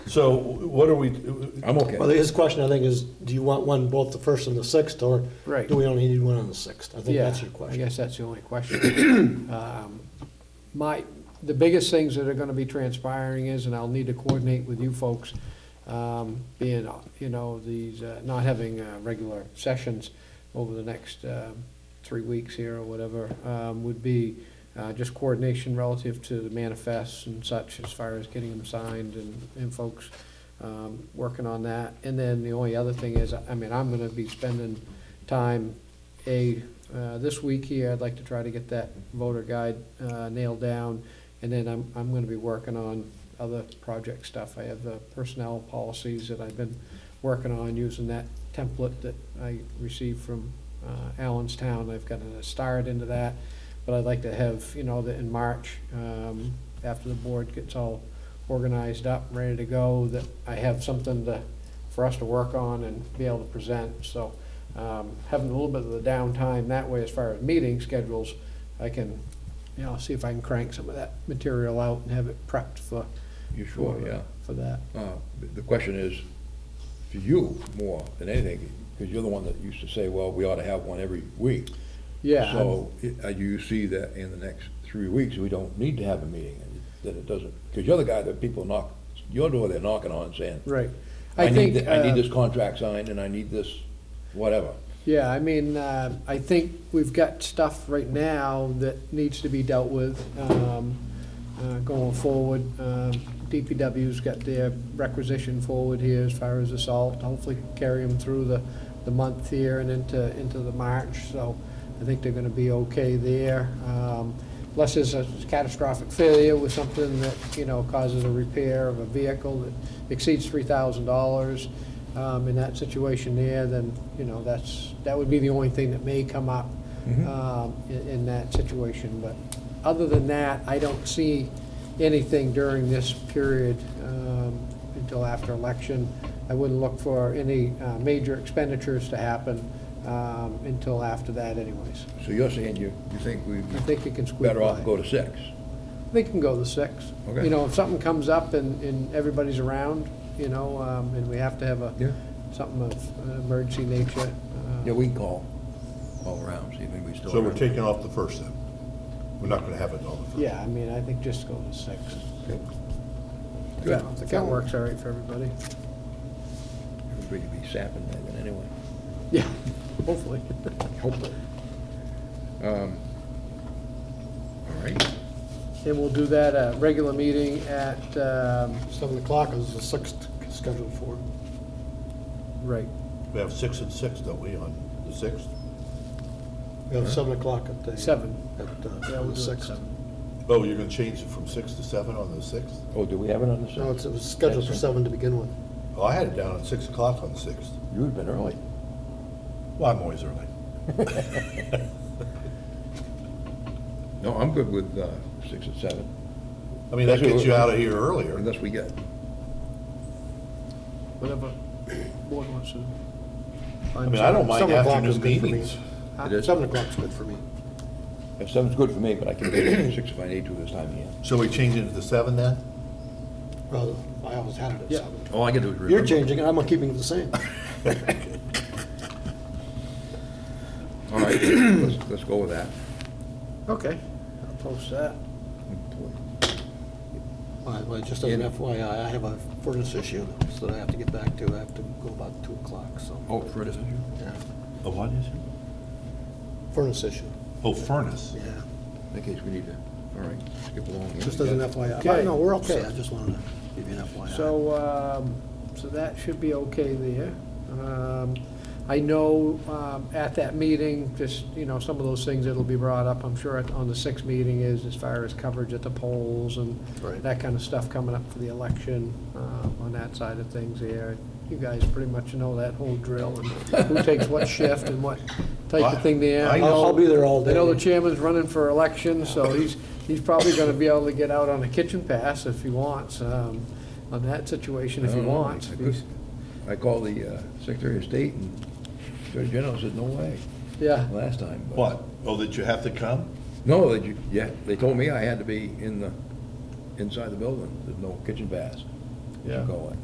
So what are we, I'm okay. Well, his question, I think, is, do you want one both the first and the sixth, or Right. do we only need one on the sixth? I think Yeah, that's your I question. guess that's the only question. Um, My, the biggest things that are gonna be transpiring is, and I'll need to coordinate with you folks, um, being, you know, these, uh, not having uh, regular sessions over the next um, three weeks here or whatever, um, would be uh, just coordination relative to the manifests and such, as far as getting them signed and, and folks um, working on that. And then the only other thing is, I mean, I'm gonna be spending time, A, uh, this week here, I'd like to try to get that voter guide uh, nailed down. And then I'm, I'm gonna be working on other project stuff. I have the personnel policies that I've been working on, using that template that I received from uh, Allenstown. I've gotten a start into that, but I'd like to have, you know, that in March, um, after the board gets all organized up, ready to go, that I have something to, for us to work on and be able to present. So um, having a little bit of the downtime that way as far as meeting schedules, I can, you know, see if I can crank some of that material out and have it prepped for, You sure, yeah. for that. Uh, The question is, to you more than anything, because you're the one that used to say, well, we ought to have one every week. Yeah. So i- uh, do you see that in the next three weeks, we don't need to have a meeting, and that it doesn't, because you're the guy that people knock, your door they're knocking on saying, Right. I need, think, thi- I uh, need this contract signed and I need this, whatever. Yeah, I mean, uh, I think we've got stuff right now that needs to be dealt with um, uh, going forward. Um, DPW's got their requisition forward here as far as assault, hopefully carry them through the, the month here and into, into the March, so I think they're gonna be okay there. Um, Unless there's a catastrophic failure with something that, you know, causes a repair of a vehicle that exceeds three thousand dollars, um, in that situation there, then, you know, that's, that would be the only thing that may come up, um, in, in that situation. But other than that, I don't see anything during this period, um, until after election. I wouldn't look for any, uh, major expenditures to happen, um, until after that anyways. So you're saying you, you think we I think it can squeak by. better off go to six? They can go the six. Okay. You know, if something comes up and, and everybody's around, you know, um, and we have to have a, Yeah. something of an emergency nature. uh, Yeah, we can call, all around, see if anybody's still so around. we're taking off the first then? We're not gonna have it on the first? Yeah, I mean, I think just go to six. Okay. If Good. that- If that works all right for everybody. Everybody be sapping by then anyway. Yeah, hopefully. Hopefully. Um, All right. And we'll do that, uh, regular meeting at, um, Seven o'clock is the sixth scheduled for. right, We have six and six, don't we, on the sixth? We have seven o'clock at the. Seven. At uh, Yeah, we'll the do it sixth. seven. Oh, you're gonna change it from six to seven on the sixth? Oh, do we have it on the sixth? No, it's- it was scheduled for seven to begin with. Oh, I had it down at six o'clock on the sixth. You've been early. Well, I'm always early. No, I'm good with uh, six and seven, I mean, that That's what- gets you out of here earlier. unless we get, whatever board wants to. I mean, I don't mind Seven o'clock is afternoon good for me. meetings. it is, Seven o'clock's good for me. if seven's good for me, but I can do it at six if I need to this time of year. So we change it to seven then? Well, I always had it at Yeah. seven. All Oh, I can do is remember. You're changing it, I'm keeping it the same. All right, let's, let's go with that. Okay, I'll post that. By the way, just as an FYI, I have a furnace issue that I have to get back to. I have to go about two o'clock, so. Oh, for it. yeah. A what is it? Furnace issue, Oh, furnace. yeah. In case we need to, all right, skip along. here. Just as an FYI. Okay. No, we're okay, I just wanted to give you an FYI. So, um, so that should be okay there. Um, I know, um, at that meeting, just, you know, some of those things that'll be brought up, I'm sure, at- on the sixth meeting is as far as coverage at the polls and Right. that kind of stuff coming up for the election, uh, on that side of things there. You guys pretty much know that whole drill and who takes what shift and what type of thing there. I- I I'll I'll be there all day. I know the chairman's running for election, so he's, he's probably gonna be able to get out on a kitchen pass if he wants, um, on that situation if he I don't know, wants. I could- I called the uh, Secretary of State and Attorney General said, no way, Yeah, last time. but- What? Oh, that you have to come? No, they, ju- yeah, they told me I had to be in the, inside the building, there's no kitchen baths. what you're Yeah. going.